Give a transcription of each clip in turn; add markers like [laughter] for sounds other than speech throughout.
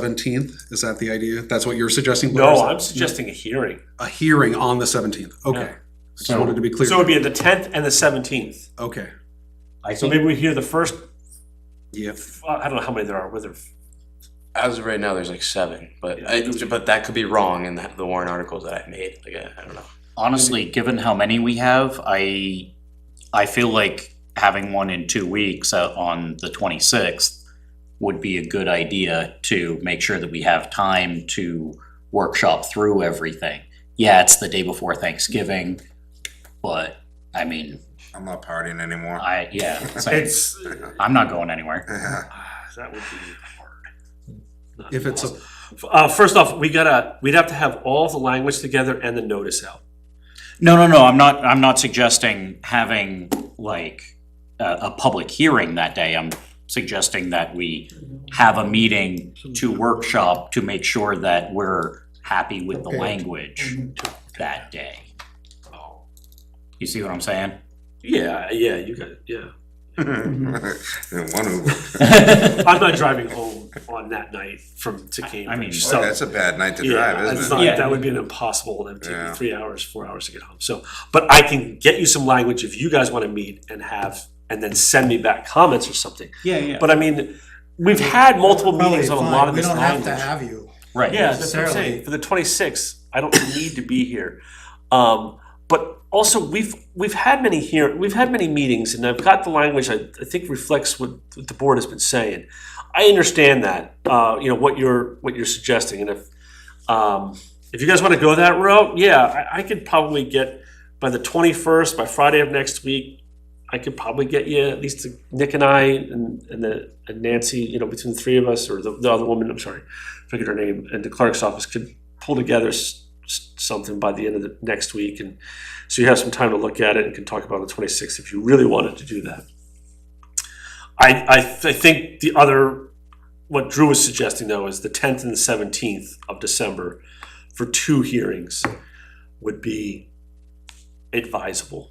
seventeenth? Is that the idea? That's what you're suggesting? Blair? Is No, that- I'm suggesting a hearing. A hearing on the seventeenth, okay. I just So- wanted to be So it would clear. be the tenth and the seventeenth. Okay, I So think maybe we hear the first, yeah, I don't know how many there are, whether, As of right now, there's like seven, but I, but that could be wrong in the, the warrant articles that I made. Like I, I don't know. honestly, given how many we have, I, I feel like having one in two weeks uh, on the twenty-sixth would be a good idea to make sure that we have time to workshop through everything. Yeah, it's the day before Thanksgiving, but I mean, I'm not partying anymore. I, [laughs] yeah, it's- it's, I'm not going anywhere. ah, that would be hard. Not if it's, a possible. Uh, first off, we gotta, we'd have to have all the language together and the notice out. No, no, no, I'm not, I'm not suggesting having like a, a public hearing that day. I'm suggesting that we have a meeting to workshop to make sure that we're happy with the language that day. You see what I'm saying? Yeah, yeah, you got, it, yeah. [laughs] In one Uber. I'm not driving home on that night from, to I mean- Cambridge, Boy, so. that's a bad night to Yeah, drive, that's isn't it? not, Yeah. that would be an impossible, it'd take Yeah. me three hours, four hours to get home, so, but I can get you some language if you guys wanna meet and have, and then send me back comments or something. Yeah, yeah. But I mean, we've had multiple meetings on a Probably lot fine. of this language. We don't have to have you. [laughs] Right. Yeah, that's what I'm necessarily. saying. For the twenty-sixth, I don't [coughs] need to be here. Um, but also, we've, we've had many here, we've had many meetings, and I've got the language, I, I think reflects what, what the board has been saying. I understand that, uh, you know, what you're, what you're suggesting, and if, um, if you guys wanna go that route, yeah, I, I could probably get, by the twenty-first, by Friday of next week, I could probably get you, at least Nick and I, and, and the, and Nancy, you know, between the three of us, or the, the other woman, I'm sorry, figured her name, and the clerk's office could pull together s- s- something by the end of the next week, and so you have some time to look at it and can talk about it on the twenty-sixth if you really wanted to do that. I, I, th- I think the other, what Drew was suggesting though, is the tenth and the seventeenth of December for two hearings would be advisable.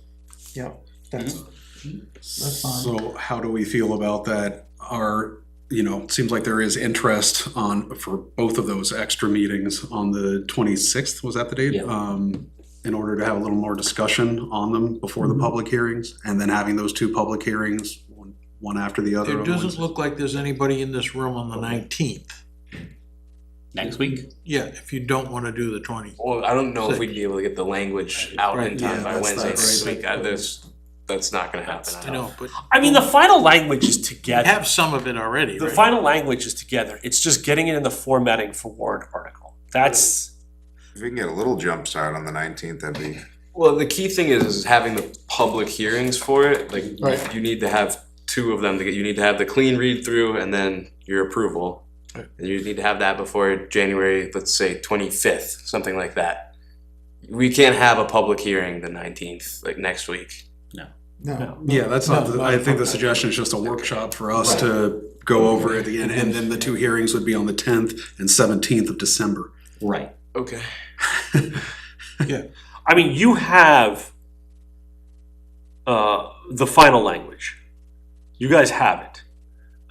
Yeah, that's, that's fine. so how do we feel about that? Our, you know, it seems like there is interest on, for both of those extra meetings on the twenty-sixth, was that the date? Yeah. Um, in order to have a little more discussion on them before the Mm-hmm. public hearings, and then having those two public hearings, one- one after the other. on It doesn't Wednesday. look like there's anybody in this room on the nineteenth. Next week? Yeah, if you don't wanna do the twenty. Well, I don't know if we'd be able to get the language out in Right, time yeah, by that's Wednesday not next right. week. I, there's, that's not going to happen. I I don't- know, but I mean, the final language is you together. have some of it already, The right? final language is together. It's just getting it in the formatting for warrant article. That's If we can get a little jump start on the nineteenth, that'd be. Well, the key thing is, is having the public hearings for it, like, Right. you need to have two of them, to get. you need to have the clean read-through and then your approval. Right. And you need to have that before January, let's say twenty-fifth, something like that. We can't have a public hearing the nineteenth, like next week. No. Yeah, that's not, No, the- not I a think the public. suggestion is just a workshop for us to go over at the end, and then the two hearings would be on the tenth and seventeenth of December. Right. Okay. I mean, you have uh, the final language. You guys have it.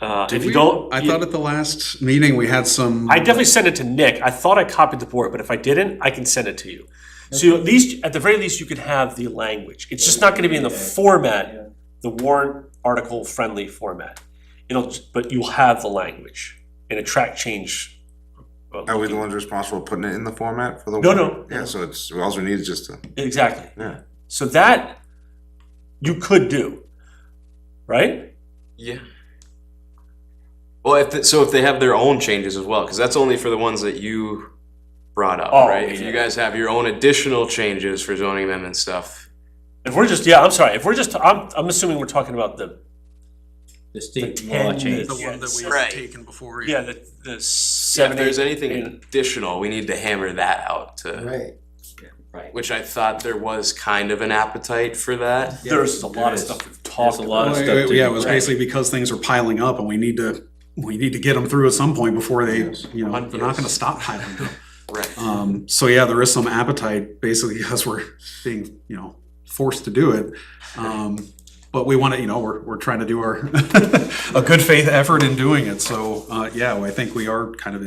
Uh, Did if you we- don't, I you- thought at the last meeting, we had some. I definitely sent it to Nick. I thought I copied the board, but if I didn't, I can send it to you. So you at least, at the very least, you can have the language. It's just not going to be in the format, the warrant article friendly format. It'll, but you'll have the language and a track change. uh, Are we the ones responsible for putting it in the format for the? No, warrant? no. Yeah, so it's, all we need is just a, Exactly. yeah. So that you could do, right? Yeah. Well, if, the- so if they have their own changes as well, because that's only for the ones that you brought up, Oh, right? If yeah. you guys have your own additional changes for zoning amendment stuff, If we're just, yeah, I'm sorry. If we're just, I'm, I'm assuming we're talking about the, The state law change. The one that we had Right. taken before. yeah, the, the Yeah, seven. if there's eight, anything and- additional, we need to hammer that out to, Right. Right. which I thought there was kind of an appetite for that. There's a lot of stuff we've talked There's a lot about. of Well, stuff it- to Yeah, it be was read. basically because things are piling up and we need to, we need to get them through at some point before they, you know, they're not gonna stop piling [laughs] up. Right. Um, so yeah, there is some appetite basically [laughs] because we're being, you know, forced to do it. Um, but we want to, you know, we're, [laughs] we're trying to do our, a good faith effort in doing it. So, uh, yeah, I think we are kind of